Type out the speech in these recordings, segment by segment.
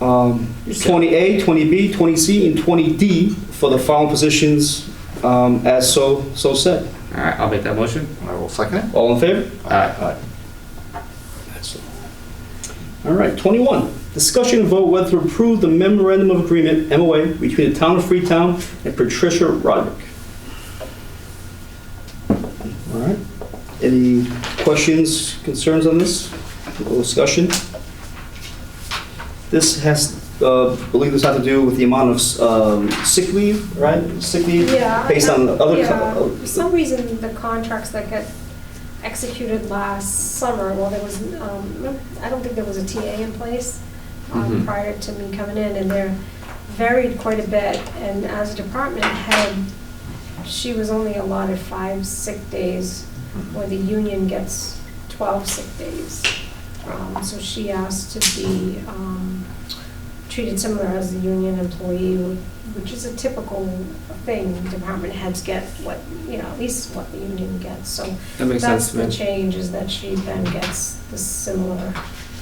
um, 20A, 20B, 20C, and 20D for the following positions um, as so, so said. All right, I'll make that motion. Uh, I will second it. All in favor? Aye. Excellent. All right, 21, discussion and vote whether to approve the memorandum of agreement, MOA, between the town of Freetown and Patricia Roderick. All right, any questions, concerns on this, Little discussion? This has, uh, I believe this has to do with the amount of um, sick leave, right? Sick leave, Yeah. based on other... uh, Yeah, for some reason, the contracts that got executed last summer, well, there was, um, I don't think there was a TA in place um, Mhm. Mm-hmm. prior to me coming in, and they're varied quite a bit, and as a department head, she was only allotted five sick days, where the union gets twelve sick days. Um, So she asked to be um, treated similar as a union employee, which is a typical thing, department heads get what, you know, at least what the union gets, so. That makes sense to me. That's the change, is that she then gets the similar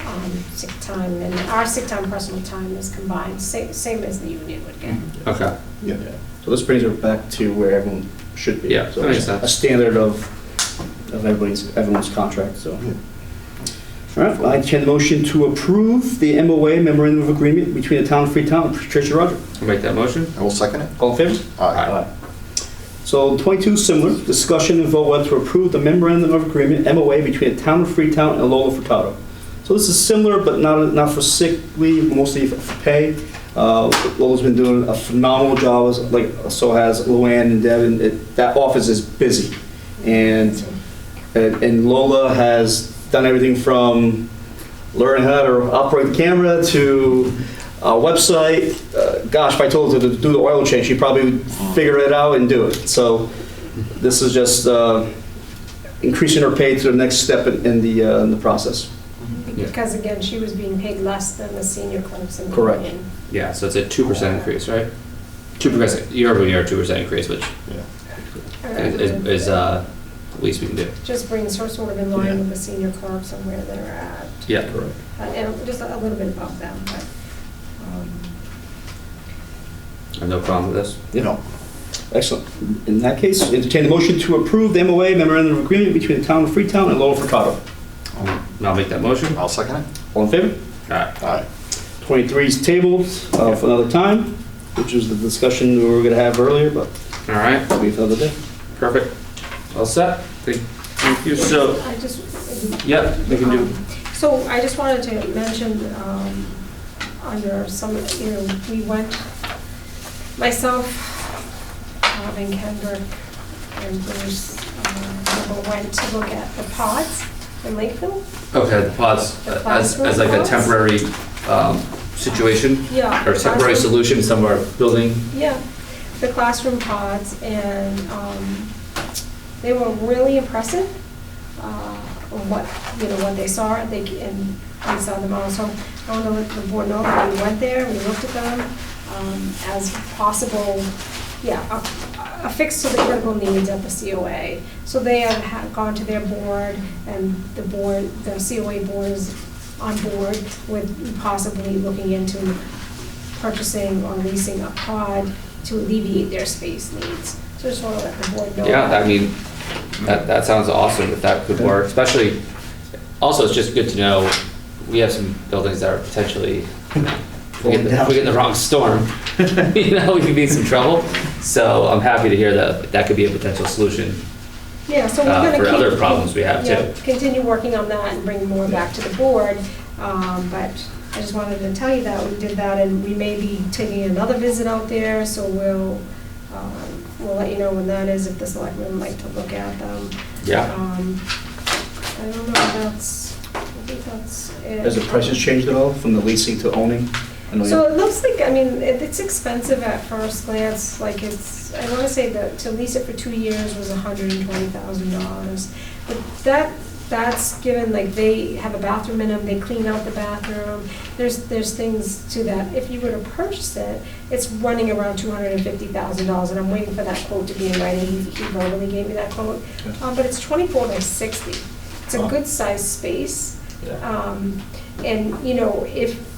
um, sick time, and our sick time, personal time is combined, sa- same as the union would get. Okay, Yeah. So this brings it back to where everyone should be. Yeah, So that makes it's sense. A standard of, of everybody's, everyone's contract, so. All right, I entertain the motion to approve the MOA memorandum of agreement between the town of Freetown and Patricia Roger. I'll make that motion. Uh, I will second it. All in favor? Aye. So 22, similar, discussion and vote whether to approve the memorandum of agreement, MOA, between the town of Freetown and Lola Furtado. So this is similar, but not, not for sick leave, mostly for- for pay. Uh, Lola's been doing a phenomenal job, as- like, so has Luann and Devin. It- That office is busy. And and, and Lola has done everything from learn how to operate the camera to a website. Uh, gosh, if I told her to do the oil change, she probably would figure it out and do it. So this is just uh, increasing her pay to the next step in, in the uh, in the process. Yeah. Because again, she was being paid less than the senior clerks in the Correct. union. Yeah, so it's a two percent increase, right? Two percent, year over year, two percent increase, which is, is- is, uh, the least we can do. Just brings her sort of in line with the senior clerks and where they're at. Yeah. Uh, And just a little bit above them, but. um, I have no problem with this. You know, Excellent. In that case, entertain the motion to approve the MOA memorandum of agreement between the town of Freetown and Lola Furtado. And I'll make that motion. All I'll second it. All in favor? right, Aye. 23 is tabled uh, for another time, which is the discussion we were going to have earlier, but all right, that'll be for another day. perfect. All set? Thank thank you. So, I just, uh, yeah, we can do, Um, So I just wanted to mention, um, under some, you know, we went, myself, Bob and Kendrick, and Bruce, uh, we went to look at the pods in Lakeville. okay, the pods, uh, as, as like a temporary, um, situation Yeah. or temporary solution somewhere building. Yeah, the classroom pods, and um, they were really impressive, uh, on what, you know, what they saw, they, and we saw them also. I don't know if the board know, but we went there, we looked at them um, as possible, yeah, a- a fix to the critical needs at the COA. So they have ha- gone to their board, and the board, the COA board is on board with possibly looking into purchasing or leasing a pod to alleviate their space needs. So just want to let the board know. Yeah, I that. mean, that, that sounds awesome if that could work, especially, also, it's just good to know, we have some buildings that are potentially, you know, if we get the- if we get in the wrong storm, you know, we could be in some trouble. So I'm happy to hear that that could be a potential solution. Yeah, so uh, we're going for to keep. other problems we have, yeah, too. Continue working on that and bring more back to the board. Um, But I just wanted to tell you that we did that and we may be taking another visit out there. So we'll, um, we'll let you know when that is, if the selectmen like to look at them. Yeah, Um, I don't know, if that's, I think that's it. Has the prices changed at all from the leasing to owning? I know So you- it looks like, I mean, it- it's expensive at first glance, like it's, I wanna say that to lease it for two years was hundred and twenty thousand dollars. But that, that's given, like, they have a bathroom in them, they clean out the bathroom, there's, there's things to that. If you were to purchase it, it's running around two hundred and fifty thousand dollars, and I'm waiting for that quote to be in writing, he he verbally gave me that quote. Okay. Um, but it's twenty-four by sixty, it's a Wow. good-sized space. Yeah. Um, and, you know, if,